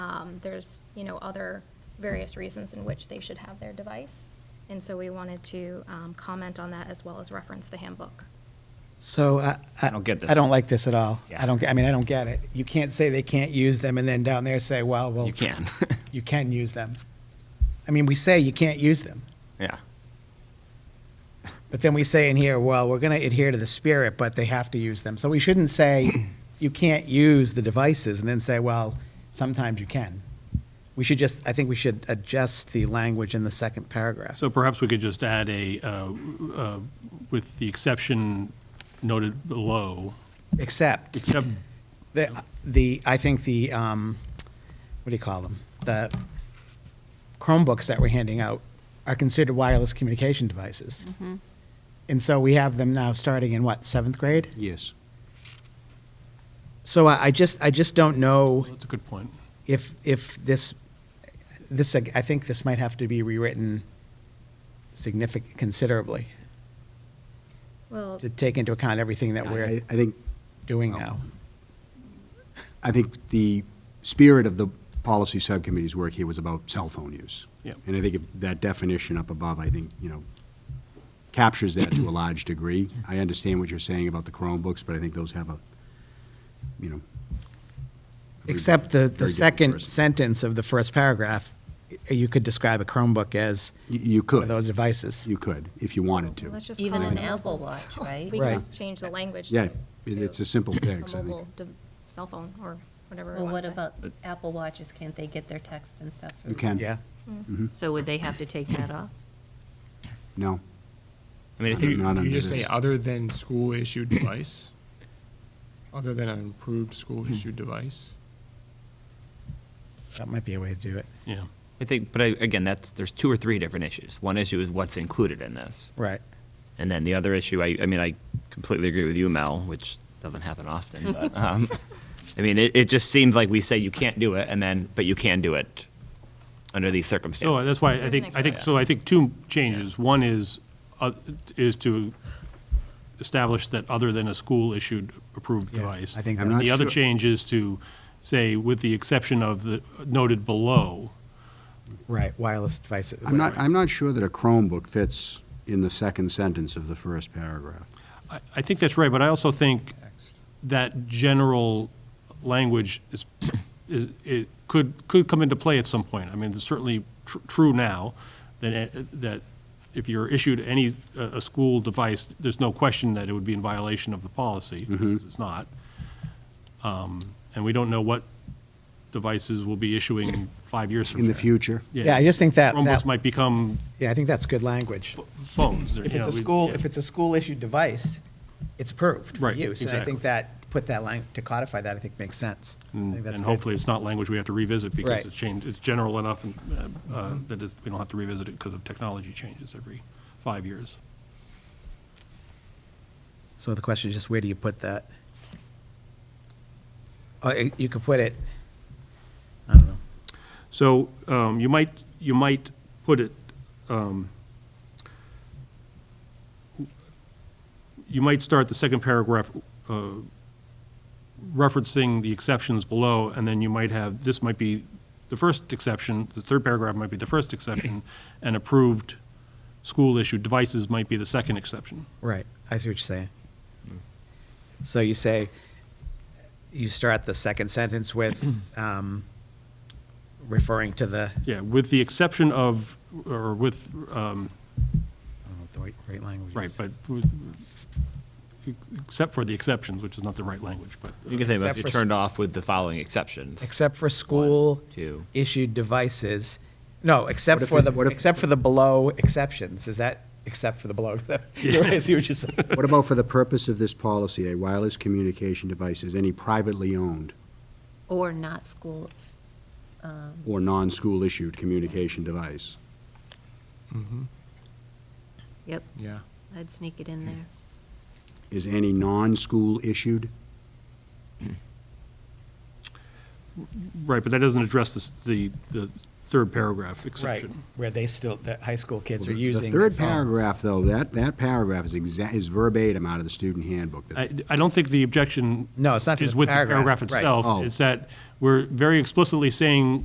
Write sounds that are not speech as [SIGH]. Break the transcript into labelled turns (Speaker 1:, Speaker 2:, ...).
Speaker 1: um, there's, you know, other various reasons in which they should have their device. And so we wanted to um, comment on that as well as reference the handbook.
Speaker 2: So I, I,
Speaker 3: I don't get this.
Speaker 2: I don't like this at all.
Speaker 3: Yeah.
Speaker 2: I don't. I mean, I don't get it. You can't say they can't use them and then down there say, well, well,
Speaker 3: You can.
Speaker 2: [LAUGHS] you can use them. I mean, we say you can't use them,
Speaker 3: Yeah.
Speaker 2: but then we say in here, well, we're going to adhere to the spirit, but they have to use them. So we shouldn't
Speaker 3: [COUGHS]
Speaker 2: say you can't use the devices and then say, well, sometimes you can. We should just. I think we should adjust the language in the second paragraph.
Speaker 4: So perhaps we could just add a, uh, uh, with the exception noted below,
Speaker 2: except
Speaker 4: except,
Speaker 2: The, the, I think the, um, what do you call them? The Chromebooks that we're handing out are considered wireless communication devices. And so we have them now starting in what, seventh grade?
Speaker 5: Yes.
Speaker 2: So I, I just, I just don't know
Speaker 4: that's a good point.
Speaker 2: if, if this, this, I think this might have to be rewritten significant, considerably
Speaker 1: Well,
Speaker 2: to take into account everything that
Speaker 5: I,
Speaker 2: we're
Speaker 5: I think,
Speaker 2: doing now.
Speaker 5: I think the spirit of the policy subcommittee's work here was about cell phone use.
Speaker 4: Yep.
Speaker 5: And I think if that definition up above, I think, you know, captures that to a large degree. I understand what you're saying about the Chromebooks, but I think those have a, you know. a
Speaker 2: Except the,
Speaker 5: very
Speaker 2: the
Speaker 5: different
Speaker 2: second
Speaker 5: person.
Speaker 2: sentence of the first paragraph, y- you could describe a Chromebook as
Speaker 5: You- You
Speaker 2: one of those
Speaker 5: could,
Speaker 2: devices.
Speaker 5: you could, if you wanted to.
Speaker 1: let's just call
Speaker 6: Even
Speaker 1: it
Speaker 6: an
Speaker 1: a-
Speaker 6: Apple Watch, right?
Speaker 1: We
Speaker 2: Right.
Speaker 1: can just change the language.
Speaker 5: Yeah,
Speaker 1: to-
Speaker 5: it-
Speaker 1: to
Speaker 5: it's a simple fix, I
Speaker 1: A
Speaker 5: think.
Speaker 1: mobile de- cell phone or whatever. we
Speaker 6: Well,
Speaker 1: wanna
Speaker 6: what
Speaker 1: say.
Speaker 6: about Apple Watches? Can't they get their text and stuff? from
Speaker 5: You can.
Speaker 2: Yeah.
Speaker 6: them? So would they have to take that off?
Speaker 5: No,
Speaker 3: I mean, I
Speaker 5: Not
Speaker 3: think,
Speaker 5: under
Speaker 7: Do you just say
Speaker 5: this.
Speaker 7: other than school-issued device? Other than an improved
Speaker 5: Hmm.
Speaker 7: school-issued device?
Speaker 2: That might be a way to do it.
Speaker 4: Yeah.
Speaker 3: I think, but I, again, that's, there's two or three different issues. One issue is what's included in this.
Speaker 2: Right.
Speaker 3: And then the other issue, I, I mean, I completely agree with you, Mel, which doesn't happen often, but, um, I mean, it, it just seems like we say you can't do it and then, but you can do it under these
Speaker 4: So
Speaker 2: Oh,
Speaker 3: circumstances.
Speaker 4: that's why I
Speaker 1: There's
Speaker 4: think,
Speaker 1: an
Speaker 4: I think, so I think two changes. One is, uh, is to establish that other than a school-issued approved
Speaker 2: Yeah,
Speaker 4: device.
Speaker 2: I think
Speaker 5: I'm not
Speaker 4: The other
Speaker 5: sure.
Speaker 4: change is to say, with the exception of the noted below,
Speaker 2: Right. Wireless devices.
Speaker 5: I'm not, I'm not sure that a Chromebook fits in the second sentence of the first paragraph.
Speaker 4: I, I think that's right, but I also think that general language is, [CLEARS THROAT] is, it could, could come into play at some point. I mean, it's certainly tr- true now, that, it- that if you're issued any, a, a school device, there's no question that it would be in violation of the policy.
Speaker 5: Mm-hmm.
Speaker 4: It's not. Um, And we don't know what devices we'll be issuing five years from
Speaker 5: In the
Speaker 4: now.
Speaker 5: future?
Speaker 2: Yeah, I just think that- that-
Speaker 4: Chromebooks might become
Speaker 2: Yeah, I think that's good language.
Speaker 4: phones.
Speaker 2: If it's a school, if it's a school-issued device, it's approved for
Speaker 4: Right,
Speaker 2: use. And I think
Speaker 4: exactly.
Speaker 2: that, to put that line, to codify that, I think makes sense. I think
Speaker 4: And
Speaker 2: that's
Speaker 4: Mm. and
Speaker 2: good.
Speaker 4: hopefully, it's not language we have to revisit
Speaker 2: Right.
Speaker 4: because it's changed, it's general enough and, uh, uh, that it's- we don't have to revisit it because of technology changes every five years.
Speaker 2: So the question is just where do you put that? Uh, it- you could put it, I don't know.
Speaker 4: So um, you might, you might put it, um, you might start the second paragraph uh, referencing the exceptions below, and then you might have, this might be the first exception, the third paragraph might be the first exception, and approved school-issued devices might be the second exception.
Speaker 2: Right, I see what you're saying.
Speaker 4: Mm.
Speaker 2: So you say, you start the second sentence
Speaker 4: [CLEARS THROAT]
Speaker 2: with um, referring to the,
Speaker 4: Yeah, with the exception of, or with, um,
Speaker 2: I don't know what the right, right language is.
Speaker 4: right, but, with- except for the exceptions, which is not the right language, but.
Speaker 3: You can say, but
Speaker 2: Except
Speaker 3: if you
Speaker 2: for s-
Speaker 3: turned off with the following exceptions.
Speaker 2: Except for school
Speaker 3: two.
Speaker 2: issued devices, no, except
Speaker 5: What if
Speaker 2: for
Speaker 5: it-
Speaker 2: the,
Speaker 5: what if-
Speaker 2: except for the below exceptions, is that, except [LAUGHS] for the below, you're right, [LAUGHS] I see what you're saying.
Speaker 5: What about for the purpose of this policy, a wireless communication device is any privately owned
Speaker 6: Or not school?
Speaker 5: or non-school issued communication device?
Speaker 6: Yep,
Speaker 7: Yeah.
Speaker 6: I'd sneak it in there.
Speaker 5: Is any non-school issued?
Speaker 4: Right, but that doesn't address this- the, the third paragraph
Speaker 2: Right,
Speaker 4: exception.
Speaker 2: where they still, the high school kids are
Speaker 5: Well, the-
Speaker 2: using.
Speaker 5: The third
Speaker 2: their phones.
Speaker 5: paragraph, though, that, that paragraph is exa, is verbatim out of the student handbook.
Speaker 4: I, I don't think the objection.
Speaker 2: No, it's not to
Speaker 4: Is
Speaker 2: the
Speaker 4: with the
Speaker 2: paragraph,
Speaker 4: paragraph
Speaker 2: right.
Speaker 4: itself,
Speaker 5: Oh.
Speaker 4: is that we're very explicitly saying